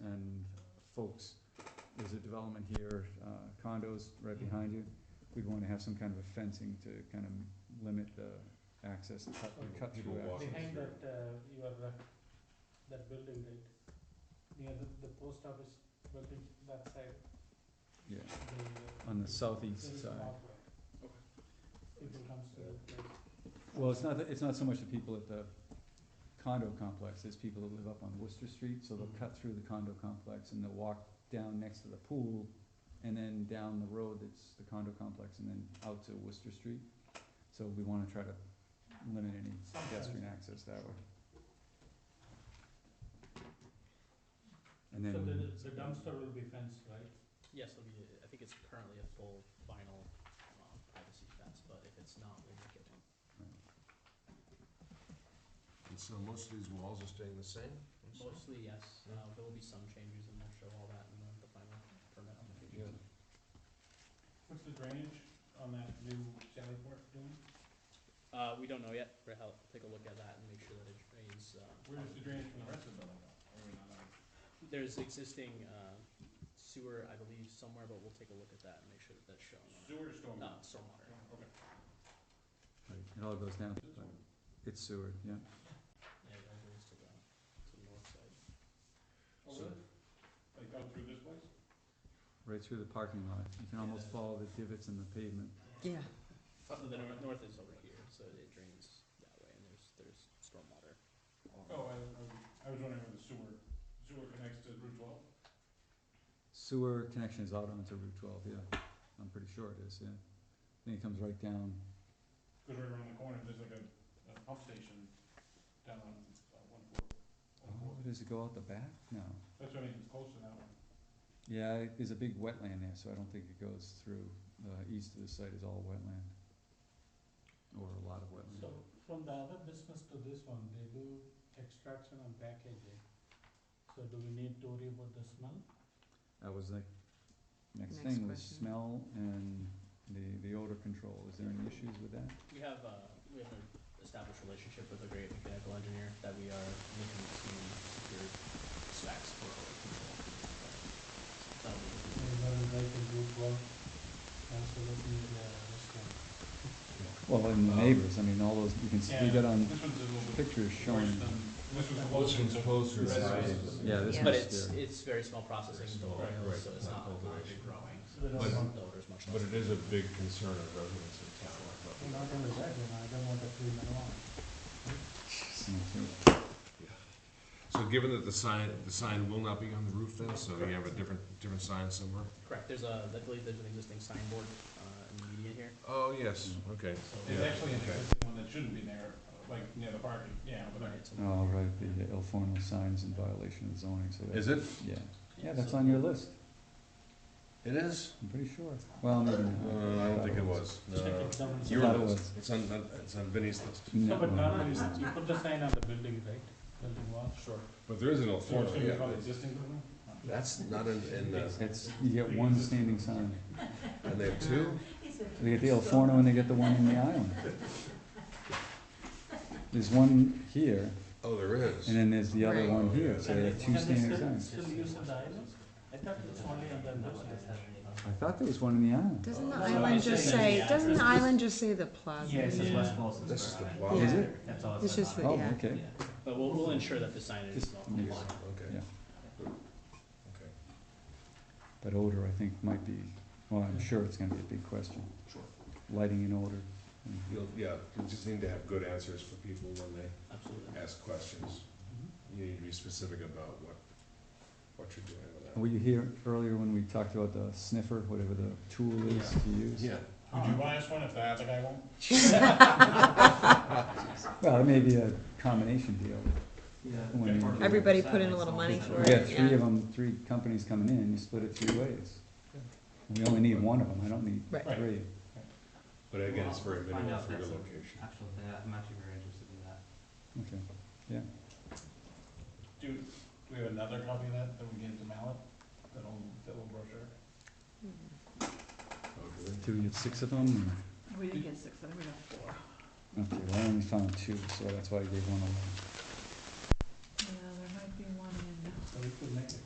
and folks, there's a development here, uh, condos right behind you. We'd wanna have some kind of a fencing to kind of limit the access, cut, cut Oh, People through walking. access. Behind that, uh, your, uh, that building, right, near the, the post office building, that side, Yeah, the. uh, on the there southeast is side. walkway. People comes to that place. Well, it's not, that- it's not so much the people at the condo complex, it's people that live up on Worcester Street, so they'll Mhm. cut through the condo complex and they'll walk down next to the pool and then down the road that's the condo complex and then out to Worcester Street. So we wanna try to limit any pedestrian access that way. And So the, then, the dumpster will be fenced, right? Yes, it'll be, I think it's currently a full vinyl um, privacy fence, but if it's not, we'll make it one. And so most of these walls are staying the same? Mostly, yes, uh, there will be some changes and we'll show all that in the- the final permit Yeah. application. What's the drainage on that new Sally Port doing? Uh, we don't know yet, but I'll take a lolook at that and make sure that it drains, uh. Where's the drainage from the rest of the building? Are we not allowed? There's existing, uh, sewer, I believe, somewhere, but we'll take a look at that and make sure that that's shown. Sewer or storm? No, stormwater. Okay. right, it all goes down, This one. it's Seward, yeah. Yeah, it all goes to the, to the north side. Oh, So- really? Like out through this place? Right through the parking lot, you can almost follow the divots in the pavement. Yeah. So the north, north is over here, so it drains that way, and there's, there's stormwater. Oh, I, I was- I was wondering where the sewer, sewer connects to Route twelve? Sewer connection is out onto Route twelve, yeah, I'm pretty sure it is, yeah. I think it comes right down, Cause right around the corner, there's like a, a pump station down on uh, one four. one oh, four. does it go out the back? No. That's what I mean, it's close to that one. Yeah, I- there's a big wetland there, so I don't think it goes through, uh, east of the site is all wetland. Or a lot of wetland. So from the other business to this one, they do extraction and packaging. So do we need to worry about the smell? That was the next Next thing, was question. smell and the, the odor control, is there any issues with that? We have, uh, we have an established relationship with a great mechanical engineer that we are looking to secure specs for our control. So That'll be, Well, and the Um, neighbors, I mean, all those, you can see, we got on This one's a little bit pictures worse showing. than, this was This closer one's to. closer. This is- right? Yeah, this Yeah. but one's it's, there. it's very small processing Very small, oil, right, so it's right, not, not not overly- growing. But The it's- odor's much But less. it is a big concern of residents in town. not gonna that, you know, I don't want to clean it along. Mm, So given that the sign, the sign will not be on the roof then, so you have a different, different sign somewhere? Correct, there's a, I believe there's an existing signboard, uh, in the median here, Oh, yes, okay. so. It's Yeah, actually an okay. existing one that shouldn't be there, like near the parking, yeah, but Right, so- too. Oh, right, the ill formal signs in violation of zoning, so that's. Is it? Yeah, yeah, that's so- on your list, It is? I'm pretty sure. Well, maybe Uh, not. I don't think it was. No. I Your thought it was. list. It's on, it's on Vinnie's list. No, but no, not no. only, that, you put the sign on the building, right, building wall? Sure. But there is an So it's Alforno, gonna be called yeah. existing building? That's not in, in the, It's, you get one standing sign. and they have two? They get the El Forno and they get the one in the island. There's one here, Oh, there is. and then there's the other Right. one here, so there are two standing signs. Still use of the island? I thought it's only on the north side. I thought there was one in the island. Doesn't the No, island it's just just saying say, the doesn't the address. island just say the plaza? Yeah, it says West Boylston. This is the Yeah. plaza. That's all It's just the, Oh, yeah. okay, Yeah, but we'll, we'll ensure that the signage is Just not maybe. compliant. Okay. Yeah. Okay. but odor, I think, might be, well, I'm sure it's gonna be a big question. Sure. Lighting and odor. You'll, yeah, you just need to have good answers for people when they Absolutely. ask questions. You need to be specific about what, what you're doing with that. Were you here earlier when we talked about the sniffer, whatever the tool is to use? Yeah, Would you buy us one if the other guy won't? Well, it may be a combination deal. When you- Everybody put in a little money for We got it, three yeah. of them, three companies coming in, you split it three ways. We only need one of them, I don't need Right. Right. three. but again, it's very Find minimal out for your that's a- location. Actually, yeah, I'm actually very interested in that. Okay, Do, do we have another copy of that that we gave to Mallet, that old, that old brochure? Okay. do we have six of them? We didn't get six, I think we got four. or- Okay, well, I only found two, so that's why I gave one away. Yeah, there might be one in. So we could make it